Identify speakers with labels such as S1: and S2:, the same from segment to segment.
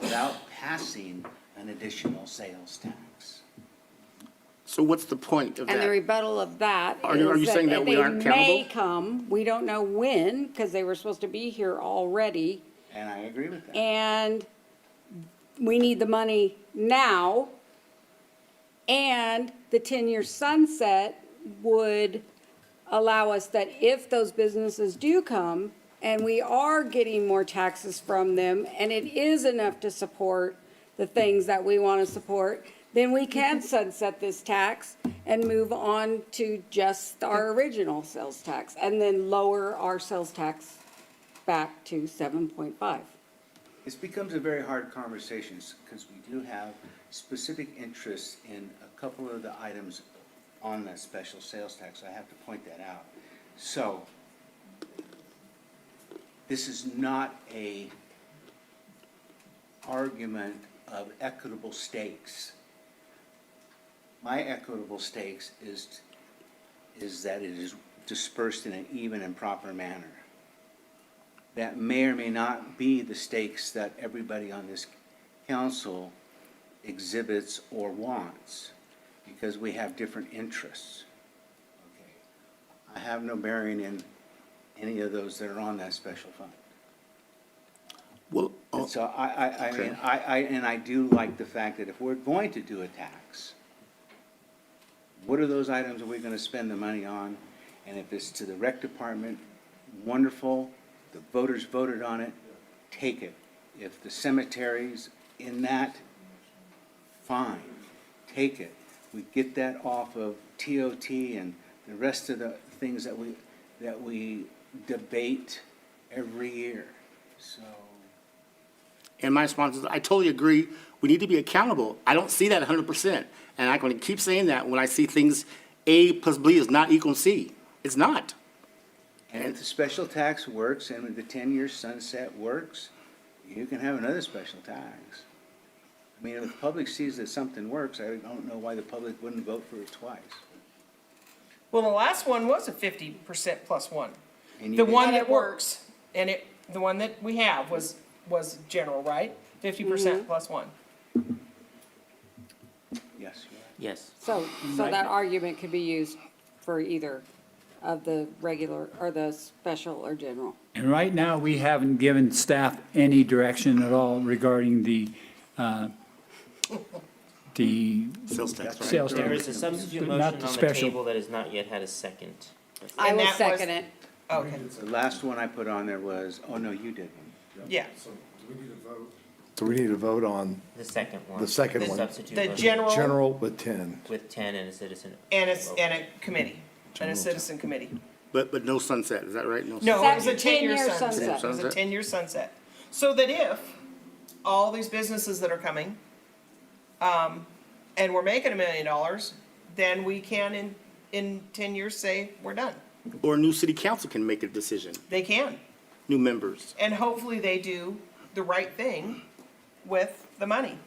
S1: without passing an additional sales tax.
S2: So what's the point of
S3: And the
S2: that?
S3: rebuttal of that
S2: Are you- are you
S3: is
S2: saying that
S3: that
S2: we
S3: they
S2: aren't
S3: may
S2: accountable?
S3: come, we don't know when, because they were supposed to be here already,
S1: And I agree with that.
S3: and we need the money now. And the ten-year sunset would allow us that if those businesses do come, and we are getting more taxes from them, and it is enough to support the things that we want to support, then we can sunset this tax and move on to just our original sales tax, and then lower our sales tax back to seven point five.
S1: This becomes a very hard conversation because we do have specific interests in a couple of the items on that special sales tax. I have to point that out. So this is not a argument of equitable stakes. My equitable stakes is, is that it is dispersed in an even and proper manner that may or may not be the stakes that everybody on this council exhibits or wants, because we have different interests. Okay, I have no bearing in any of those that are on that special fund.
S2: Well,
S1: And
S2: oh,
S1: so I, I, I mean,
S2: Okay.
S1: I, I, and I do like the fact that if we're going to do a tax, what are those items are we gonna spend the money on? And if it's to the rec department, wonderful, the voters voted on it, take it. If the cemeteries in that, fine, take it. We get that off of TOT and the rest of the things that we, that we debate every year, so.
S2: and my response is, I totally agree. We need to be accountable. I don't see that hundred percent. And I'm gonna keep saying that when I see things, A plus B is not equal to C. It's not.
S1: And if the special tax works and if the ten-year sunset works, you can have another special tax. I mean, if the public sees that something works, I don't know why the public wouldn't vote for it twice.
S4: Well, the last one was a fifty percent plus one.
S1: And you
S4: The
S1: did-
S4: one that works, and it, the one that we have was, was general, right? Fifty percent plus one.
S1: Yes, you're right.
S5: Yes.
S3: So, so that argument could be used for either of the regular, or the special or general.
S6: And right now, we haven't given staff any direction at all regarding the, uh, the
S2: Sales tax, right?
S6: sales
S5: There
S6: tax.
S5: is a substitute
S6: But not
S5: motion
S6: the
S5: on the
S6: special.
S5: table that has not yet had a second.
S3: I
S4: And
S3: will
S4: that was-
S3: second it.
S4: Okay,
S1: The last one I put on there was, oh, no, you did one.
S4: yeah.
S7: So we need to vote on
S5: The second one.
S7: The second
S5: The
S7: one.
S5: substitute
S4: The
S5: motion
S4: general
S7: general with 10.
S5: with ten and a citizen.
S4: and a, and a committee, and a citizen committee.
S2: But, but no sunset, is that right? No
S4: No, it was a
S3: Sunset, 10-year
S4: ten-year sunset.
S3: sunset.
S4: It was a
S2: Sunset.
S4: ten-year sunset. So that if all these businesses that are coming, um, and we're making a million dollars, then we can in, in ten years say, we're done.
S2: sun- Or a new city council can make a decision,
S4: They can.
S2: new members,
S4: And hopefully they do the right thing with the money.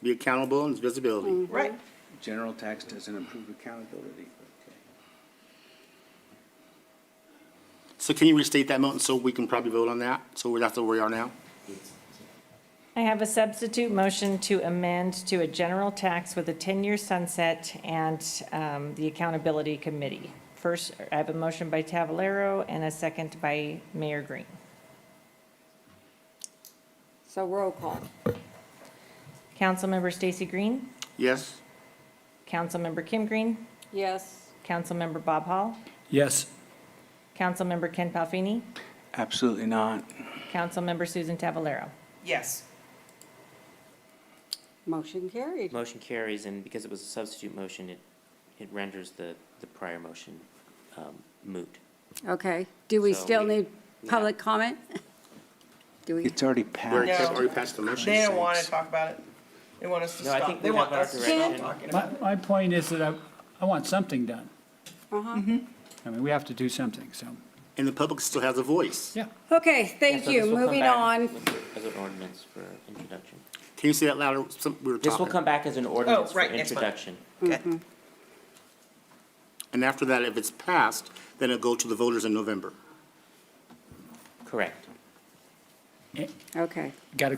S2: be accountable and visibility.
S4: Right.
S1: General tax doesn't improve accountability. Okay.
S2: So can you restate that, Milton, so we can probably vote on that? So we're- that's where we are now?
S8: I have a substitute motion to amend to a general tax with a 10-year sunset and um, the accountability committee. First, I have a motion by Tavallaro and a second by Mayor Green.
S3: So roll call.
S8: Councilmember Stacy Green,
S2: Yes?
S8: Councilmember Kim Green,
S3: Yes,
S8: Councilmember Bob Hall,
S6: Yes,
S8: Councilmember Ken Palfini,
S1: Absolutely not.
S8: Councilmember Susan Tavallaro.
S4: Yes.
S3: motion carried.
S5: Motion carries, and because it was a substitute motion, it, it renders the, the prior motion um, moot.
S3: Okay, do we
S5: So
S3: still
S5: we-
S3: need public comment? Do we?
S1: It's already
S2: Or
S1: passed.
S4: No.
S2: or you passed the motion?
S4: They don't want to talk about it. They want us to
S5: No, I think
S4: stop. They
S5: we
S4: want
S5: have
S4: us
S5: our
S4: to stop
S5: direction.
S4: talking
S6: my,
S4: about it.
S6: my point is that I, I want something done. Mm-hmm.
S3: Uh-huh.
S6: I mean, we have to do something, so,
S2: And the public still has a voice.
S6: yeah.
S3: Okay,
S5: And
S3: thank
S5: so
S3: you.
S5: this will come
S3: Moving
S5: back
S3: on.
S5: with- As an ordinance for introduction.
S2: Can you say that louder? Some, we were
S5: This will
S2: talking.
S5: come back as an ordinance for
S4: Ah. Oh, right, next month.
S5: introduction.
S4: Okay.
S2: And after that, if it's passed, then it'll go to the voters in November.
S5: Correct.
S3: Okay.
S6: Got a